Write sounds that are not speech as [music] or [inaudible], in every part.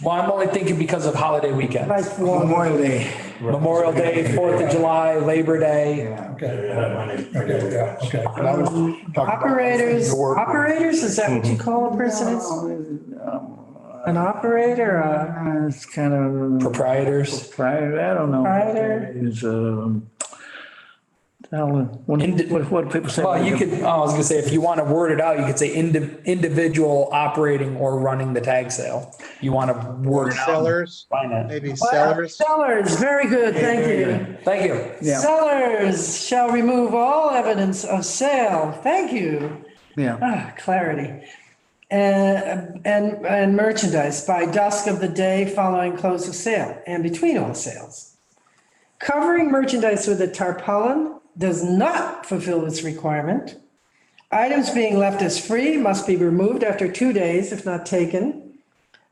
Well, I'm only thinking because of holiday weekend, Nice one. Memorial Day. Memorial Day, Fourth of July, Labor Day. Okay, okay, Okay. yeah, okay. But I was talking about- Operators, Your work. operators, is that what you call a person? It's An operator, a Uh, It's kind of, Proprietors, private, I don't know. Private. It's, um, I don't know, what, what- what people say. well, you could, oh, I was gonna say, if you want to word it out, you could say indi- individual operating or running the tag sale. You want to word it out. Sellers, Find it. maybe Well, sellers. Sellers, very good, thank you. Thank you. Yeah. Sellers shall remove all evidence of sale, thank you. Yeah, Ah, clarity. And, and, and merchandise by dusk of the day following close of sale and between all sales. Covering merchandise with a tarpaulin does not fulfill this requirement. Items being left as free must be removed after two days if not taken.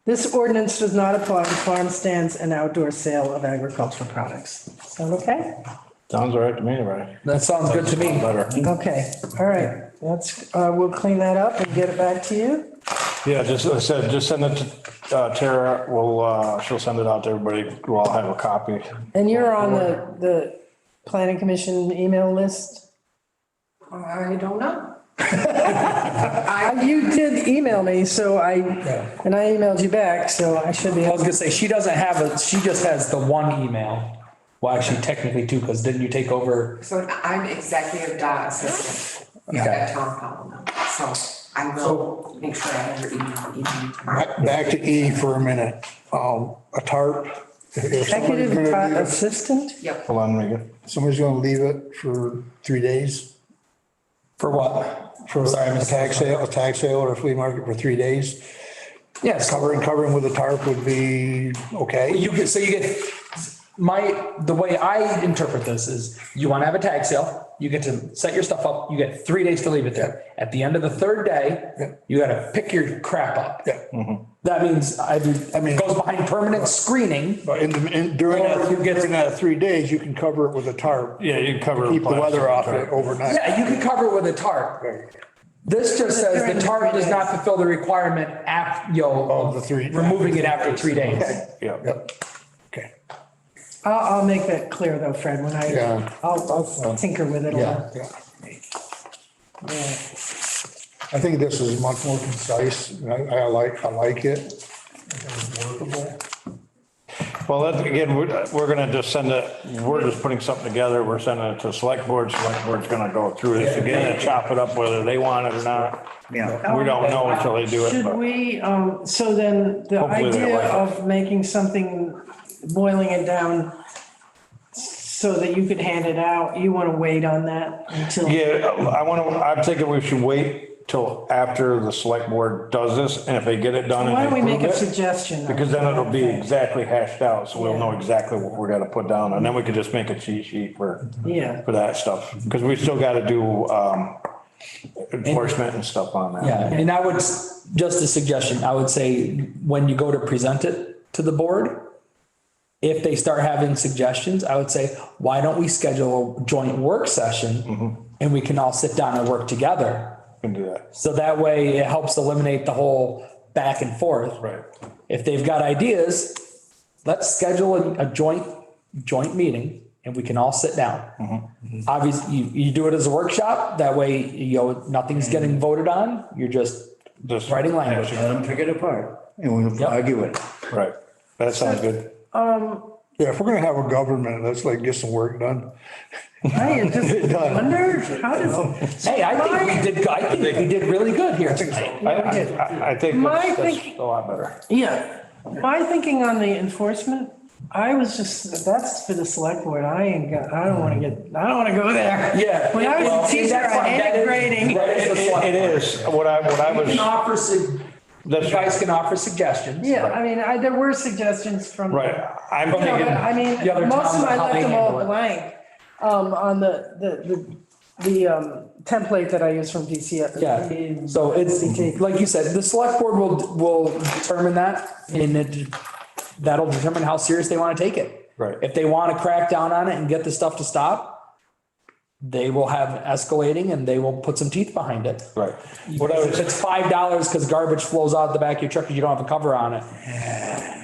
This ordinance does not apply to farm stands and outdoor sale of agricultural products. Sound okay? Sounds all right to me, right? That sounds good to me. Better. Okay, all right, that's, uh, we'll clean that up and get it back to you. Yeah, just, I said, just send it to uh, Tara. We'll, uh, she'll send it out to everybody. We'll all have a copy. And you're on the, the planning commission email list? I don't know. I- You did email me, so I, and I emailed you back, so I should be, I was gonna say, she doesn't have a, she just has the one email. Well, actually technically two, because didn't you take over? So I'm executive dot assistant Okay. at Tom Powell now, so I will make sure I have your email, email tomorrow. Back back to E for a minute. Um, A tarp. if somebody's executive gonna leave pro- it- assistant? Yep. Hold on, Megan. Somebody's gonna leave it for three days For what? for Sorry, a Mr. tax sale, a tax sale or a flea market for three days. Yes. Covering, covering with a tarp would be okay. You get, so you get, my, the way I interpret this is you want to have a tag sale. You get to set your stuff up. You get three days to leave it there. At the end of the third day, you got to pick your crap up. Yeah. That means I, I mean, mean- it goes behind permanent screening. But in, the- in, during that, Or you get- during that three days, you can cover it with a tarp. Yeah, you can cover. Keep the weather off plastic it tarp. overnight. Yeah, you can cover it with a tarp. This just says During the the tarp three does not days. fulfill the requirement af, yo. Of the three- Removing it after three days. Yeah. Okay. I'll, I'll make that clear though, Fred, when I, Yeah. I'll, I'll tinker with it a little. Yeah. I think this is much more concise. and I, I like, I like it. It's workable. Well, that, again, we're, we're gonna just send it, we're just putting something together. We're sending it to select board. Select board's gonna go through this again and chop it up whether they want it or not. yeah. We don't know until they do it, Should but we, um, so then the Hopefully they idea like it. of making something, boiling it down so that you could hand it out, you want to wait on that until? yeah, I wanna, I'm thinking we should wait till after the select board does this and if they get it done Why and don't we they make a approve it. suggestion? Because then it'll be exactly hashed out, so we'll know exactly what we're gonna put down, and then we could just make a cheat sheet for, Yeah. for that stuff, because we still gotta do, um, enforcement and stuff on that. Yeah, and I would, s- just a suggestion, I would say, when you go to present it to the board, if they start having suggestions, I would say, why don't we schedule a joint work session? And we can all sit down and work together. Can do that, So that way it helps eliminate the whole back and forth. right. If they've got ideas, let's schedule a, a joint, joint meeting and we can all sit down. Obviously, you, you do it as a workshop, that way, you know, nothing's getting voted on, you're just Just- writing language. Let them pick it apart and we'll Yep. argue it. Right, that sounds good. Yeah, if we're gonna have a government, let's like get some work done. I [laughs] just wonder, how does, Hey, I think we did, I think we did really good here tonight. I, I, I- I think My that's, that's thinking- a lot better. yeah, my thinking on the enforcement, I was just, that's for the select board, I ain't got, I don't want to get, I don't want to go there. Yeah. When I well, was a teacher, that's I fine. That hated is- grading. that It, is a select- it is, what I, what I You can was, offer, sug- you that's, guys can offer suggestions. Yeah, I mean, I, there were suggestions from. right, I'm No, but thinking, I mean, The other most towns, of them, I how they left them all handle blank, um, on the, the, the, the, um, template that I use from DCF. Yeah, so it's, like you said, the select board will, will determine that and it, that'll determine how serious they want to take it. Right. If they want to crack down on it and get the stuff to stop, they will have escalating and they will put some teeth behind it. right. What I Because was, If it's five dollars because garbage flows out the back of your truck because you don't have a cover on it,